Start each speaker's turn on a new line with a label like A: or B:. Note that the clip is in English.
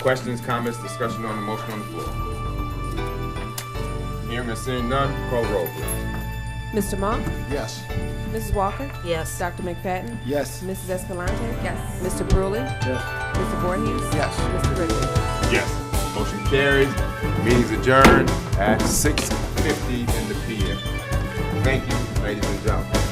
A: Questions, comments, discussion on the motion on the floor? Hearing and seeing none, call roll, please.
B: Mr. Monk?
C: Yes.
B: Mrs. Walker?
D: Yes.
B: Dr. McFadden?
C: Yes.
B: Mrs. Escalante? Yes. Mr. Brewley?
C: Yes.
B: Mr. Voorhees?
C: Yes.
B: Mr. Ridley?
A: Yes. Motion carries. Meeting's adjourned at six fifty in the PM. Thank you, ladies and gentlemen.